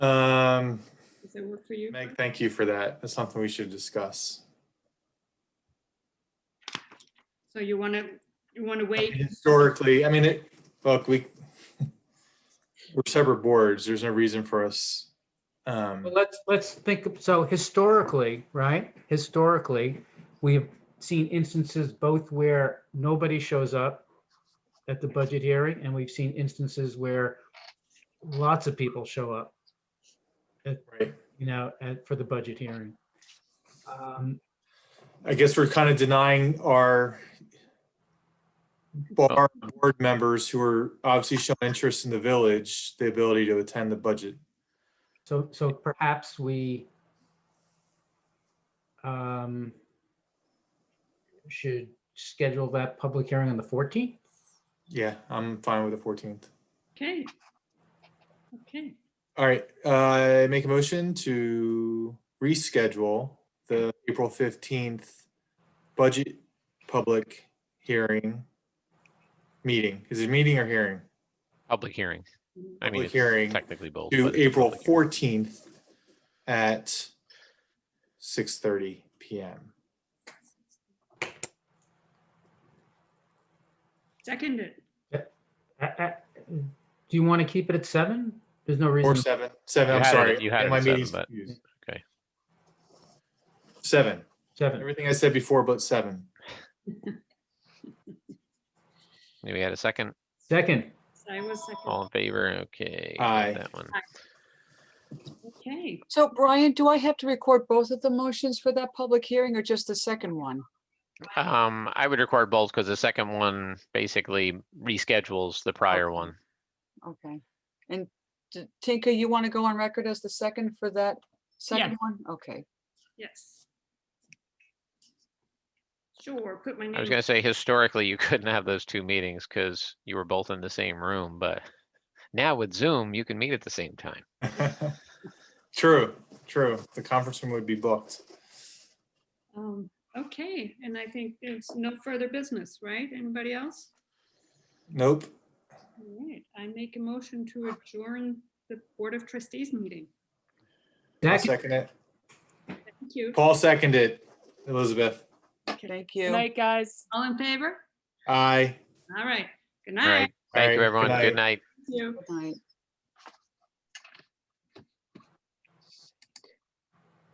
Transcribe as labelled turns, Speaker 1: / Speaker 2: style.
Speaker 1: work for you?
Speaker 2: Um, Meg, thank you for that. That's something we should discuss.
Speaker 1: So you want to, you want to wait?
Speaker 2: Historically, I mean, it, look, we, we're separate boards. There's no reason for us. Um,
Speaker 3: Well, let's, let's think, of- so historically, right, historically, we have seen instances both where nobody shows up at the budget hearing, and we've seen instances where lots of people show up,
Speaker 2: right.
Speaker 3: you know, at, for the budget hearing. Um,
Speaker 2: I guess we're kind of denying our bar board members who are obviously showing interest in the village, the ability to attend the budget.
Speaker 3: So, so perhaps we um, should schedule that public hearing on the 14th?
Speaker 2: Yeah, I'm fine with the 14th.
Speaker 1: Okay. Okay,
Speaker 2: All right, uh, make a motion to reschedule the April fifteenth budget public hearing meeting. Is it meeting or hearing?
Speaker 4: Public hearing. I mean,
Speaker 2: Public
Speaker 4: it's
Speaker 2: hearing
Speaker 4: technically both.
Speaker 2: To
Speaker 4: but it's
Speaker 2: April
Speaker 4: public hearing.
Speaker 2: fourteenth at six thirty PM.
Speaker 1: seconded.
Speaker 3: A- a- Uh, mm. Do you want to keep it at seven? There's no
Speaker 2: Or
Speaker 3: reason,
Speaker 2: seven, seven,
Speaker 4: You
Speaker 2: I'm
Speaker 4: had it-
Speaker 2: sorry.
Speaker 4: you had it
Speaker 2: My
Speaker 4: at seven,
Speaker 2: meeting's
Speaker 4: but-
Speaker 2: confused.
Speaker 4: okay.
Speaker 2: Seven,
Speaker 3: seven.
Speaker 2: everything I said before but seven.
Speaker 4: Maybe we had a second,
Speaker 3: Second,
Speaker 1: I was second.
Speaker 4: all in favor, okay. got
Speaker 2: Aye.
Speaker 4: That one.
Speaker 1: Okay,
Speaker 5: So Brian, do I have to record both of the motions for that public hearing or just the second one?
Speaker 4: Um, I would record both because the second one basically reschedules the prior one.
Speaker 5: Okay. And T- Tinka, you want to go on record as the second for that second one? Okay.
Speaker 1: yes. Sure, put my name.
Speaker 4: I was gonna say historically, you couldn't have those two meetings because you were both in the same room, but now with Zoom, you can meet at the same time.
Speaker 2: True, true. The conference room would be booked.
Speaker 1: Um, Okay, and I think it's no further business, right? Anybody else?
Speaker 2: Nope.
Speaker 1: All right, I make a motion to adjourn the Board of Trustees meeting.
Speaker 2: I'll
Speaker 3: second,
Speaker 2: second it.
Speaker 1: Thank you.
Speaker 2: Paul seconded. Elizabeth,
Speaker 5: Thank you.
Speaker 6: Night, guys.
Speaker 1: All in favor?
Speaker 2: aye.
Speaker 1: All right, good
Speaker 4: All
Speaker 1: night.
Speaker 4: right. Thank
Speaker 1: Ah.
Speaker 2: Alright,
Speaker 4: you,
Speaker 2: good
Speaker 4: everyone.
Speaker 2: night.
Speaker 4: Good night.
Speaker 1: Thank you.
Speaker 5: Good night.